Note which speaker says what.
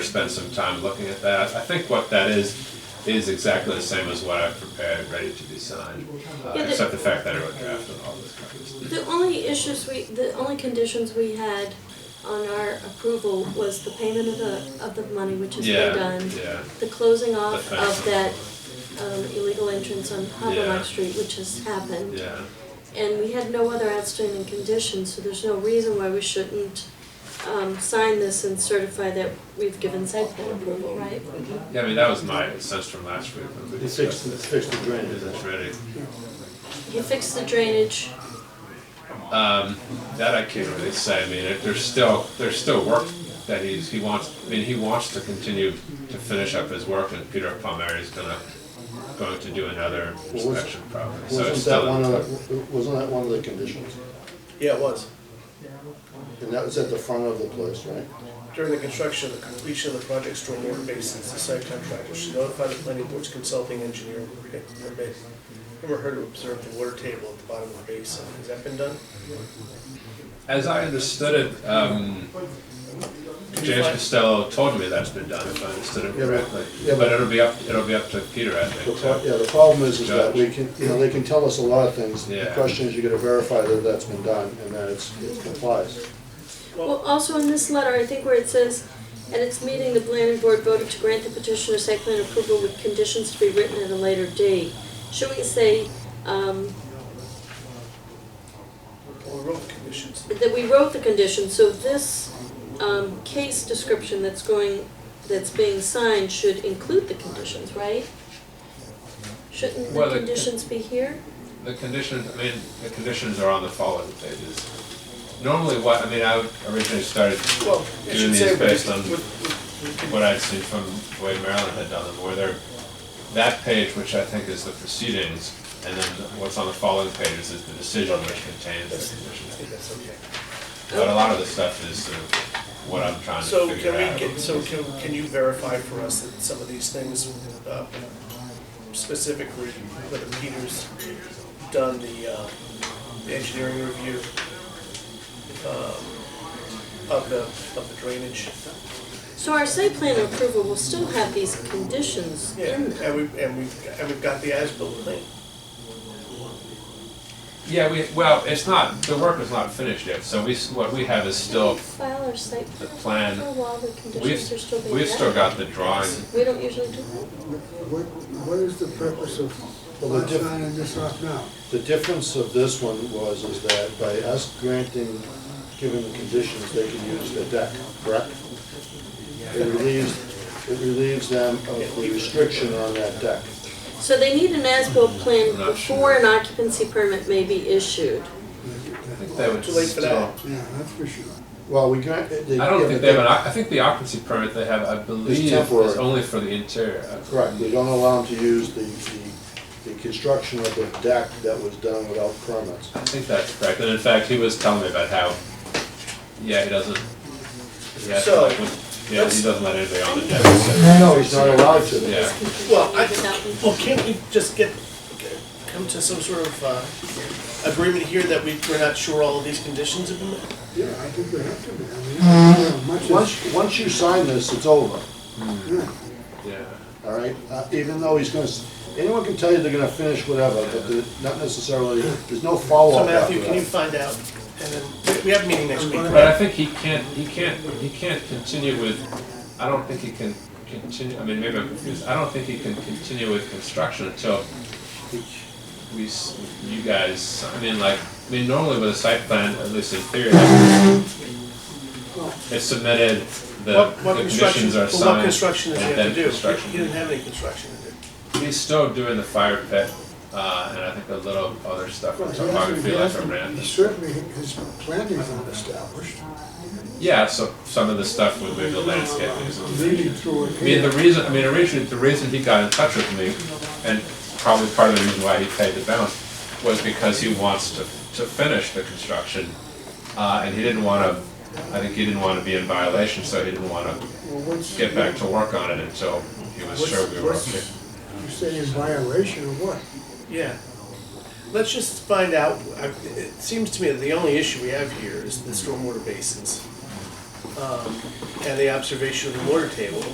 Speaker 1: spend some time looking at that. I think what that is, is exactly the same as what I've prepared, ready to be signed, uh,
Speaker 2: Yeah, the-
Speaker 1: except the fact that I wrote draft on all those copies.
Speaker 2: The only issues we, the only conditions we had on our approval was the payment of the, of the money, which has been
Speaker 1: Yeah,
Speaker 2: done.
Speaker 1: yeah,
Speaker 2: The closing off
Speaker 1: The
Speaker 2: of that,
Speaker 1: fencing.
Speaker 2: um, illegal entrance on
Speaker 1: Yeah.
Speaker 2: Harborough Street, which has happened.
Speaker 1: yeah.
Speaker 2: And we had no other outstanding conditions, so there's no reason why we shouldn't, um, sign this and certify that we've given site plan approval, right?
Speaker 1: Yeah, I mean, that was my sense from last week when we
Speaker 3: It's fixed,
Speaker 1: discussed
Speaker 3: it's
Speaker 1: this.
Speaker 3: fixed the drainage.
Speaker 1: Is it ready?
Speaker 2: He fixed the drainage,
Speaker 1: Um, that I can't really say. I mean, it, there's still there's still work that he's he wants. I mean, he wants to continue to finish up his work, and Peter Palmieri is gonna going to do another
Speaker 3: was-
Speaker 1: inspection probably. So it's
Speaker 3: Wasn't
Speaker 1: still
Speaker 3: that one of, the- wasn't that one of the conditions?
Speaker 4: Yeah, it was.
Speaker 3: And that was at the front of the place, right?
Speaker 4: During the construction and the completion of the project, stormwater basins, the site contractor should notify the planning board's consulting engineer when it- when it- him or her to observe the water table at the bottom of the basin. Has that been done?
Speaker 1: As I understood it, um,
Speaker 4: Did you
Speaker 1: James
Speaker 4: find-
Speaker 1: Costello told me that's been done, if I understood it
Speaker 3: Yeah, but-
Speaker 1: correctly.
Speaker 3: yeah,
Speaker 1: But
Speaker 3: but-
Speaker 1: it'll be up, it'll be up to Peter, I
Speaker 3: The
Speaker 1: think.
Speaker 3: pro-
Speaker 1: so-
Speaker 3: Yeah, the problem is, is that we can, you know, they can tell us a lot of things. The
Speaker 1: Yeah.
Speaker 3: question is, you gotta verify that that's been done and that it's, it complies.
Speaker 2: Well, also in this letter, I think where it says, at its meeting, the planning board voted to grant the petitioner site plan approval with conditions to be written at a later date. Should we say, um,
Speaker 4: Well, we wrote conditions.
Speaker 2: that we wrote the conditions, so this, um, case description that's going, that's being signed should include the conditions, right? Shouldn't the
Speaker 1: Well, the-
Speaker 2: conditions be here?
Speaker 1: The conditions, I mean, the conditions are on the following pages. Normally what, I mean, I originally started
Speaker 4: Well, it
Speaker 1: Doing
Speaker 4: should
Speaker 1: these
Speaker 4: say.
Speaker 1: based on-
Speaker 4: with- with- with-
Speaker 1: what I'd seen from the way Maryland had done them, where they're, that page, which I think is the proceedings, and then what's on the following pages is the decision which contains the
Speaker 4: I think
Speaker 1: conditions.
Speaker 4: that's okay.
Speaker 1: But a lot of the stuff is sort of what I'm trying
Speaker 4: So
Speaker 1: to
Speaker 4: can
Speaker 1: figure
Speaker 4: we
Speaker 1: out.
Speaker 4: get, so can, can you verify for us that some of these things, uh, specifically whether Peter's done the, uh, the engineering review, um, of the, of the drainage?
Speaker 2: So our site plan approval will still have these conditions
Speaker 4: Yeah,
Speaker 2: in
Speaker 4: and
Speaker 2: there.
Speaker 4: we, and we've, and we've got the as-built plan.
Speaker 1: Yeah, we, well, it's not, the work is not finished yet, so we, s- what we have is still
Speaker 2: Can we file our site
Speaker 1: the
Speaker 2: plan
Speaker 1: plan.
Speaker 2: approval while the conditions are still
Speaker 1: We've,
Speaker 2: being
Speaker 1: we've still
Speaker 2: met?
Speaker 1: got the drawing,
Speaker 2: We don't usually do that.
Speaker 5: What, what is the purpose of
Speaker 3: Well, the
Speaker 5: not
Speaker 3: diff-
Speaker 5: signing this off now?
Speaker 3: The difference of this one was, is that by us granting, given the conditions, they can use the deck, correct? It relieves, it relieves them of the restriction on that deck.
Speaker 2: So they need an as-built plan
Speaker 1: I'm not
Speaker 2: before an occupancy permit may be issued.
Speaker 1: I think they would
Speaker 4: Too late for
Speaker 1: still.
Speaker 4: that.
Speaker 5: Yeah, that's for sure.
Speaker 3: Well, we grant. they-
Speaker 1: I don't
Speaker 3: yeah,
Speaker 1: think
Speaker 3: but
Speaker 1: they have an, oc- I think the occupancy permit they have, I believe, is
Speaker 3: temporary.
Speaker 1: only for the interior. I
Speaker 3: Correct, they don't allow them to use the, the, the construction of the deck that was done without permits.
Speaker 1: I think that's correct, and in fact, he was telling me about how, yeah, he doesn't, yeah,
Speaker 4: So,
Speaker 1: like, when- yeah, he
Speaker 4: let's-
Speaker 1: doesn't let anybody on the deck. so-
Speaker 3: No, no, he's not allowed to.
Speaker 1: Yeah,
Speaker 4: Well, I,
Speaker 2: Without me.
Speaker 4: well, can't we just get, come to some sort of, uh, agreement here that we, we're not sure all of these conditions have been met?
Speaker 5: Yeah, I think we have to be, I mean, yeah, Uh-huh. much as,
Speaker 3: Once, once you sign this, it's over,
Speaker 5: yeah,
Speaker 1: yeah,
Speaker 3: all right? Uh, Even though he's gonna, s- anyone can tell you they're gonna finish whatever, but the- not necessarily, there's no
Speaker 4: So
Speaker 3: follow-up after
Speaker 4: Matthew, can you
Speaker 3: that.
Speaker 4: find out? And then, we- we have a meeting next week,
Speaker 1: but I
Speaker 4: right?
Speaker 1: think he can't, he can't, he can't continue with, I don't think he can continue, I mean, maybe I'm confused, I don't think he can continue with construction until we, s- you guys, I mean, like, I mean, normally with a site plan, at least in theory, it's submitted, the,
Speaker 4: What,
Speaker 1: the
Speaker 4: what construction,
Speaker 1: conditions are
Speaker 4: well, what
Speaker 1: signed,
Speaker 4: construction does he
Speaker 1: and
Speaker 4: have to
Speaker 1: then
Speaker 4: do?
Speaker 1: construction.
Speaker 4: He didn't have any construction to do.
Speaker 1: He's still doing the fire pit, uh, and I think a little other stuff
Speaker 5: well,
Speaker 1: with
Speaker 5: he has to-
Speaker 1: topography
Speaker 5: he
Speaker 1: like
Speaker 5: has
Speaker 1: a
Speaker 5: to, he
Speaker 1: ramp.
Speaker 5: certainly, his planning's not established,
Speaker 1: Yeah, so some of the stuff with maybe the landscaping is.
Speaker 5: leading through it
Speaker 1: I mean, the
Speaker 5: here.
Speaker 1: reason, I mean, originally, the reason he got in touch with me, and probably part of the reason why he paid the bounce, was because he wants to, to finish the construction. Uh, and he didn't wanna, I think he didn't wanna be in violation, so he didn't wanna
Speaker 5: Well, what's,
Speaker 1: get back to work on it until he was sure we were
Speaker 4: What's-
Speaker 1: okay.
Speaker 5: you say in violation of what?
Speaker 4: Yeah. Let's just find out, I, it seems to me that the only issue we have here is the stormwater basins. um, and the observation of the water table,